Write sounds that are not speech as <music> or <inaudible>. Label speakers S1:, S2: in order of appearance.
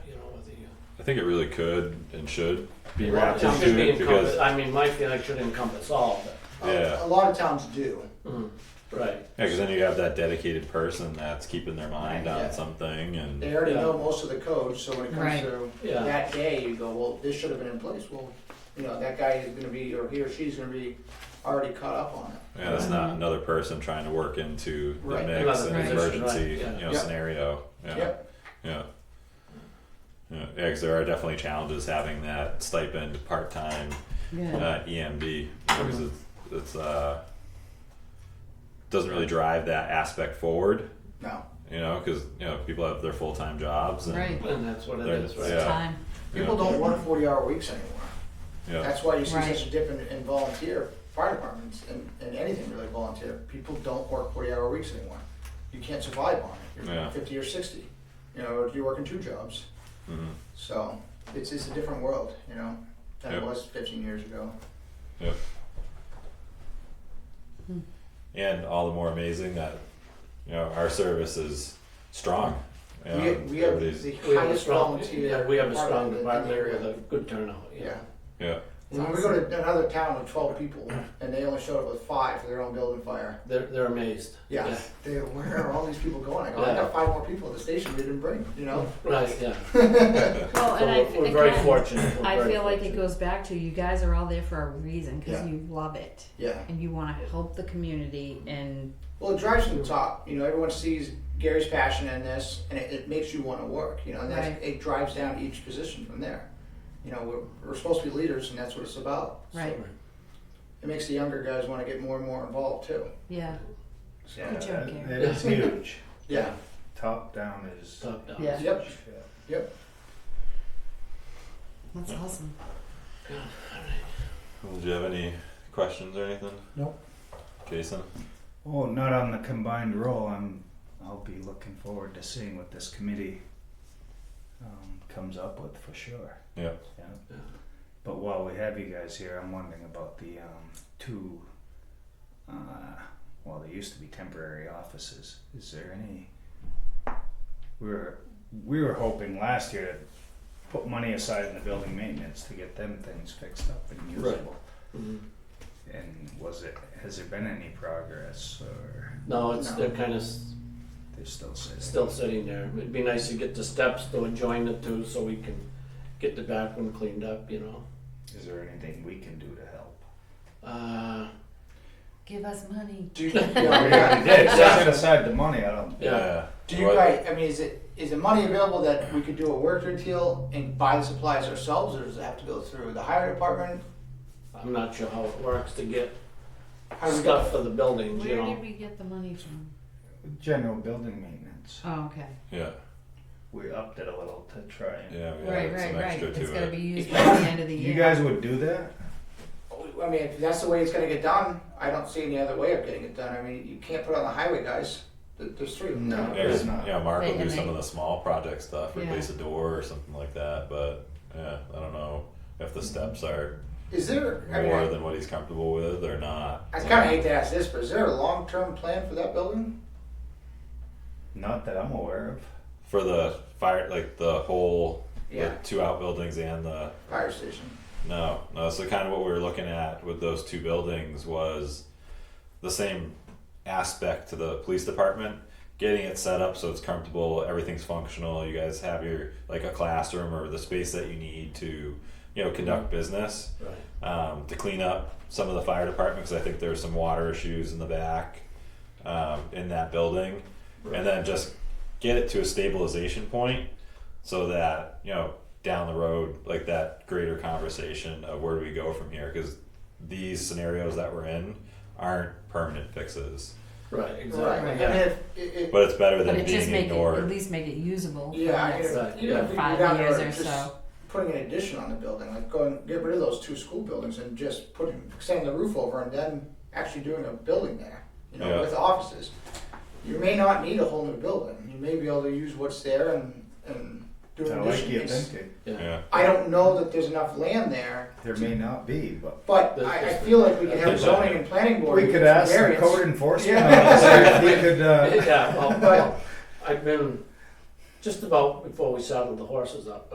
S1: I think it really could and should be
S2: A lot of
S1: wrapped
S2: towns
S1: into
S2: should be
S1: it
S2: encompass,
S1: because
S2: I mean, my feeling should encompass all,
S1: yeah,
S3: A lot of towns do.
S1: Mm.
S2: but, right,
S1: yeah, because then you have that dedicated person that's keeping their mind on
S3: Yeah.
S1: something and
S3: They already know
S2: Yeah.
S3: most of the code, so when it comes
S4: Right.
S3: to
S2: Yeah.
S3: that day, you go, well, this should have been in place. Well, you know, that guy is gonna be, or he or she's gonna be already caught up on it.
S1: yeah, that's not another person trying to work into the
S3: Right.
S1: mix
S2: Another
S1: and
S4: position,
S1: emergency
S2: right, yeah.
S1: you know
S3: Yeah.
S1: scenario. Yeah.
S3: Yep.
S1: Yeah. Yeah, because there are definitely challenges having that stipend part time
S4: Yeah.
S1: uh, EMD you know, because it's, it's uh, doesn't really drive that aspect forward.
S3: No.
S1: You know, because you know people have their full time jobs and
S4: Right.
S2: and that's what it
S1: There's-
S2: is, right?
S1: yeah.
S4: Time.
S1: you
S3: People
S1: know,
S3: don't work forty hour weeks anymore.
S1: yeah,
S3: That's why you see
S4: Right.
S3: such a dip in, in volunteer fire departments and, and anything really volunteer. People don't work forty hour weeks anymore. You can't survive on it. You're
S1: Yeah.
S3: fifty or sixty. You know, if you're working two jobs.
S1: Mhm.
S3: So it's it's a different world, you know, than
S1: Yep.
S3: it was fifteen years ago.
S1: Yep. And all the more amazing that you know our service is strong. You know,
S3: We, we have the
S1: everybody's-
S2: We have a
S3: highest
S2: strong,
S3: volunteer.
S2: yeah, we have a strong
S3: in the- in the
S2: department
S3: area.
S2: with a good turnout, yeah.
S3: Yeah.
S1: yeah,
S3: When we go to another town with twelve people and they only showed up with five for their own building fire.
S2: They're, they're amazed.
S3: Yeah. They, where are all these people going? I go, I
S2: Yeah.
S3: got five more people at the station we didn't bring, you know?
S2: Right, yeah. <laughs>
S4: Well,
S2: So
S4: and I,
S2: we're, we're very
S4: again,
S2: fortunate. We're
S4: I
S2: very
S4: feel like it
S2: fortunate.
S4: goes back to you guys are all there for a reason because
S3: Yeah.
S4: you love it
S3: Yeah.
S4: and you want to help the community and
S3: Well, it drives from the top. You know, everyone sees Gary's passion in this, and it, it makes you want to work. You know, and that's,
S4: Right.
S3: it drives down each position from there. You know, we're, we're supposed to be leaders, and that's what it's about.
S4: right.
S3: It makes the younger guys want to get more and more involved too.
S4: Yeah.
S3: So,
S4: Good job, Gary.
S3: <laughs>
S5: That is huge.
S3: yeah,
S5: Top down is.
S2: Top down.
S4: Yeah.
S3: yep,
S5: Shit.
S3: yep.
S4: That's awesome.
S1: Well, do you have any questions or anything?
S5: Nope.
S1: Jason.
S5: Oh, not on the combined roll. I'm. I'll be looking forward to seeing what this committee um, comes up with for sure.
S1: Yeah.
S5: Yeah.
S2: Yeah.
S5: But while we have you guys here, I'm wondering about the um, two. Uh, well, they used to be temporary offices. Is there any? We were we were hoping last year to put money aside in the building maintenance to get them things fixed up and usable.
S2: Right. Mhm.
S5: And was it, has there been any progress or
S2: No, it's,
S3: No.
S2: they're kind of
S5: they're still sitting?
S2: still sitting there. It'd be nice to get the steps to join the two so we can get the back one cleaned up, you know?
S5: Is there anything we can do to help?
S2: Uh,
S4: Give us money.
S2: <laughs>
S3: Do you, yeah,
S5: We already
S3: yeah.
S5: did, set aside the money, I don't.
S2: Yeah.
S3: do you
S1: What-
S3: guys? I mean, is it is the money available that we could do a worker deal and buy the supplies ourselves, or does it have to go through the highway department?
S2: I'm not sure how it works to get
S3: How do we go?
S2: stuff for the buildings, you
S4: Where
S2: know?
S4: did we get the money from?
S5: General building maintenance,
S4: Oh, okay.
S1: Yeah,
S5: we upped it a little to try and.
S1: yeah, we
S4: right,
S1: added some
S4: right, right.
S1: extra
S4: It's
S1: to
S4: got to
S1: it.
S4: be used by the end of the year.
S5: You guys would do that?
S3: I mean, if that's the way it's gonna get done, I don't see any other way of getting it done. I mean, you can't put it on the highway, guys. There- There's three. of them.
S5: No.
S1: Yeah, 'cause,
S5: It's not.
S1: you know, Mark
S4: They
S1: will
S4: can
S1: do some
S4: make-
S1: of the small project stuff,
S4: Yeah.
S1: replace a door or something like that. But yeah, I don't know if
S3: Mm-hmm.
S1: the steps are
S3: Is there? I mean,
S1: more
S3: I-
S1: than what he's comfortable with or not.
S3: I kind of hate to ask this, but is there a long-term plan for that building?
S5: Not that I'm aware of.
S1: for the fire, like the whole,
S3: Yeah.
S1: the two outbuildings and the
S3: Fire station.
S1: no, no. So kind of what we were looking at with those two buildings was the same aspect to the police department, getting it set up so it's comfortable, everything's functional. You guys have your like a classroom or the space that you need to, you know, conduct business
S2: Right.
S1: um, to clean up some of the fire department because I think there's some water issues in the back um, in that building, and then just get it to a stabilization point so that you know down the road like that greater conversation of where do we go from here because these scenarios that we're in aren't permanent fixes
S2: Right,
S3: Right.
S2: exactly.
S3: And
S2: Yeah.
S3: if, it, it,
S1: but it's better
S4: But
S1: than
S4: it just
S1: being
S4: make it, at
S1: ignored
S4: least make it usable.
S3: uh, yeah, I
S4: for
S3: guess,
S4: the
S2: Right.
S3: even if we
S4: Five
S3: go down
S4: years
S3: there,
S4: or
S3: just
S4: so.
S3: Putting an addition on the building, like going, get rid of those two school buildings and just putting, extending the roof over and then actually doing a building there, you know,
S1: Yeah.
S3: with offices. You may not need a whole new building. You may be able to use what's there and, and do an
S5: I like
S3: addition.
S5: you
S3: It's-
S5: thinking.
S2: Yeah.
S1: yeah
S3: I don't know that there's enough land there,
S5: There may not be, but
S3: but
S2: There's-
S3: I, I
S2: there's-
S3: feel like we could have
S1: there's-
S3: zoning and planning board.
S5: we could ask the
S3: variance.
S5: code enforcement
S3: Yeah.
S5: officer if he could, uh.
S2: Yeah, well,
S3: But-
S2: I've been, just about before we saddled the horses up,